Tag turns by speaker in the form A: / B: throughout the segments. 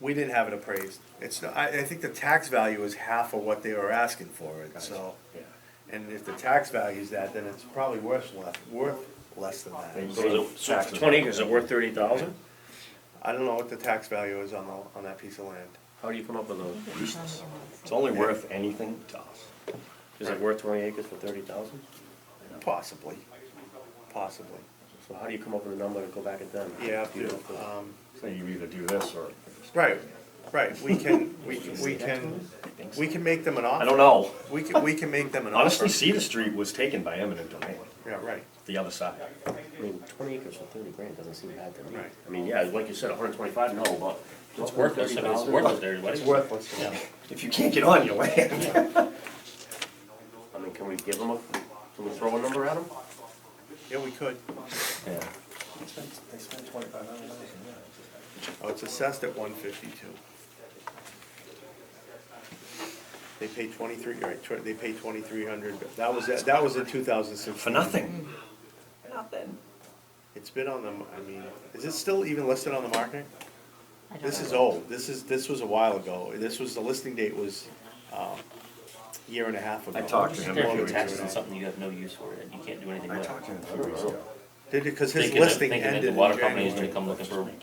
A: We didn't have it appraised. It's, not- I, I think the tax value is half of what they were asking for it, so.
B: Yeah.
A: And if the tax value is that, then it's probably worth less, worth less than
B: So
A: that.
B: is it, so for twenty acres, is it worth thirty thousand?
A: I don't know what the tax value is on the, on that piece of land.
B: How do you come up with those?
C: It's only worth anything to us.
B: Is it worth twenty acres for thirty thousand?
A: Possibly, possibly.
B: So how do you come up with a number to go back at them?
A: Yeah,
B: You don't-
A: um,
C: So you either do this or.
A: right, right, we can, we, we can, we can make them an offer.
C: I don't know.
A: We can, we can make them an offer.
C: Honestly, Cedar Street was taken by eminent domain,
A: Yeah, right,
C: the other side.
B: I mean, twenty acres for thirty grand doesn't seem bad to me.
A: Right.
B: I mean, yeah, like you said, hundred twenty-five, no, but it's worthless, I mean, it's worthless to everybody.
A: it's worthless to them.
C: If you can't get on your land.
B: I mean, can we give them a, can we throw a number at them?
A: Yeah, we could.
C: Yeah.
A: Oh, it's assessed at one fifty-two. They paid twenty-three, right, tw- they paid twenty-three hundred, that was, that was in two thousand sixteen.
C: For nothing.
A: It's been on the, m- I mean, is it still even listed on the market?
D: I don't
A: This
D: know.
A: is old, this is, this was a while ago, this was, the listing date was, um, a year and a half ago.
C: I talked to him.
A: Longer
E: If you're
A: ago.
E: taxed on something you have no use for it, you can't do anything
C: I
E: with it.
C: talked to him a few weeks ago.
A: Did it, cause his
E: Thinking that-
A: listing
E: thinking that
A: ended in
E: The water company is
A: January.
E: gonna come looking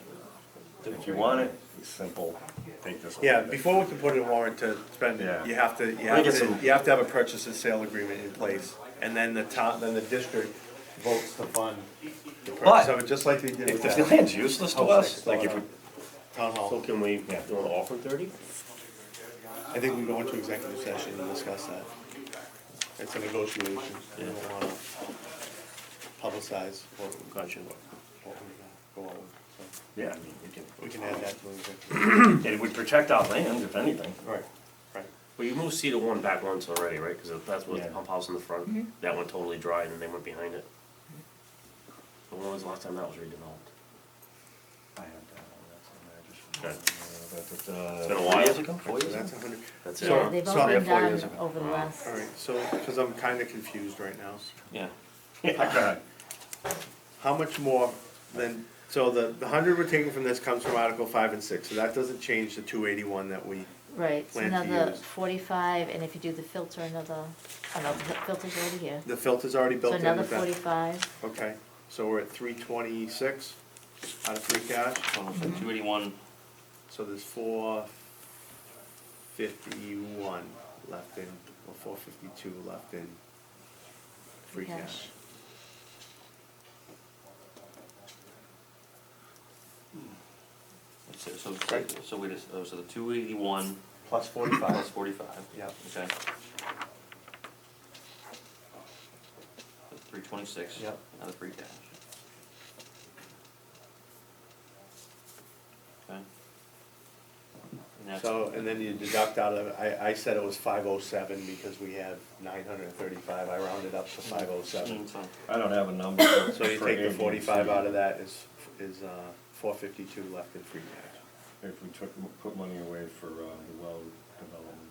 E: for,
C: If you want it, it's simple, take this.
A: Yeah, before we can put in a warrant to spend,
C: Yeah.
A: you have to, you have
C: I think it's
A: to,
C: a-
A: you have to have a purchase and sale agreement in place, and then the town, then the district votes to fund. the purchase of it, just like they did
C: If
A: with
C: the
A: that
C: land's useless
A: Oh,
C: to us, like if we,
A: town
B: So
A: hall.
B: can we,
C: Yeah.
B: do an offer thirty?
A: I think we go into executive session and discuss that. It's a negotiation, we don't wanna publicize what, what
B: Gotcha.
A: we uh, go on, with, so,
C: yeah, I mean, we can,
A: we can add that to the executive.
C: and it would protect our land, if anything.
A: Right, right.
B: Well, you moved C to one back once already, right? Cause that's what the
C: Yeah.
B: pump house in the front, that went totally dry and then they went behind it. But when was the last time that was redeveloped?
C: I have
B: Okay.
C: that one, that's on there, just-
B: It's been a while.
C: Years ago, four years
A: So
C: ago?
A: that's a hundred,
B: That's it.
D: Yeah,
B: huh?
D: they've
A: so-
D: all
A: yeah,
D: been
B: four
D: done
B: years ago.
D: over the last,
A: alright, so, cause I'm kinda confused right now, so.
B: Yeah.
C: Yeah.
A: How much more than, so the, the hundred we're taking from this comes from Article five and six, so that doesn't change the two eighty-one that we,
D: right, it's
A: Plan to
D: another
A: use.
D: forty-five, and if you do the filter, another, oh no, the filter's already here.
A: the filter's already
D: So
A: built in.
D: another
A: with that.
D: forty-five,
A: Okay, so we're at three twenty-six out of free cash, Mhm.
E: two eighty-one,
A: so there's four fifty-one left in, or four fifty-two left in free cash.
D: Cash.
E: so, so, so wait, a s- oh, so the two eighty-one
A: Plus
E: plus
A: forty-five.
E: forty-five.
A: Yep.
E: Okay. Three twenty-six.
A: Yep.
E: Out of free cash. Okay. And that's-
A: So, and then you deduct out of, I, I said it was five oh seven because we have nine hundred and thirty-five, I rounded up to five oh seven.
E: Mm, it's fine.
C: I don't have a number. for-
A: So you
C: for
A: take the
C: AD&C.
A: forty-five out of that is, is, uh, four fifty-two left in free cash.
C: If we took, put money away for, uh, the well development.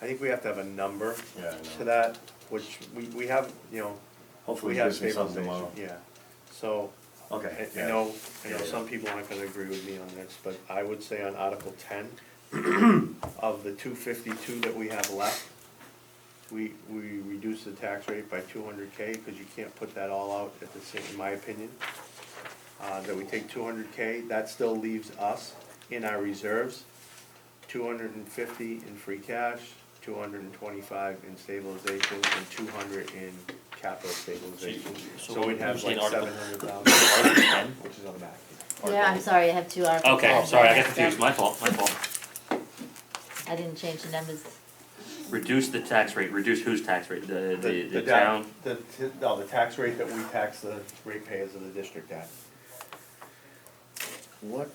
A: I think we have to have a number
C: Yeah, I know.
A: to that, which we, we have, you know,
C: Hopefully
A: we
C: he
A: have
C: gives me something
A: stabilization,
C: tomorrow.
A: yeah. So, I,
C: Okay,
A: I
C: yeah.
A: know, I know
C: Yeah, yeah.
A: some people aren't gonna agree with me on this, but I would say on Article ten, of the two fifty-two that we have left, we, we reduce the tax rate by two hundred K, cause you can't put that all out at the same, in my opinion. Uh, that we take two hundred K, that still leaves us in our reserves, two hundred and fifty in free cash, two hundred and twenty-five in stabilization, and two hundred in capital stabilization.
E: so
A: So we'd have
E: you're saying
A: like
E: Article-
A: seven hundred thousand,
E: Article 10?
A: which is on the back.
D: yeah, I'm sorry, I have two articles.
E: Okay,
A: Oh.
E: I'm sorry, I got confused, my fault, my fault.
D: I didn't change the numbers,
E: Reduce the tax rate, reduce whose tax rate, the, the, the
A: da-
E: town?
A: The, t- no, the tax rate that we tax the ratepayers of the district at.
B: What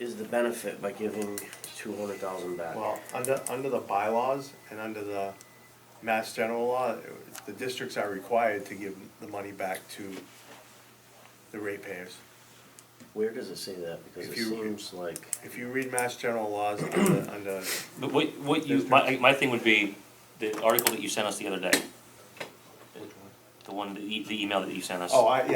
B: is the benefit by giving two hundred thousand back?
A: Well, under, under the bylaws and under the mass general law, the districts are required to give the money back to the ratepayers.
B: Where does it say that? Because
A: If
B: it
A: you-
B: seems like,
A: If you read mass general laws under, under,
E: But what, what you, my, my thing would be, the article that you sent us the other day. The one, the e- the email that you sent us.
A: oh, I,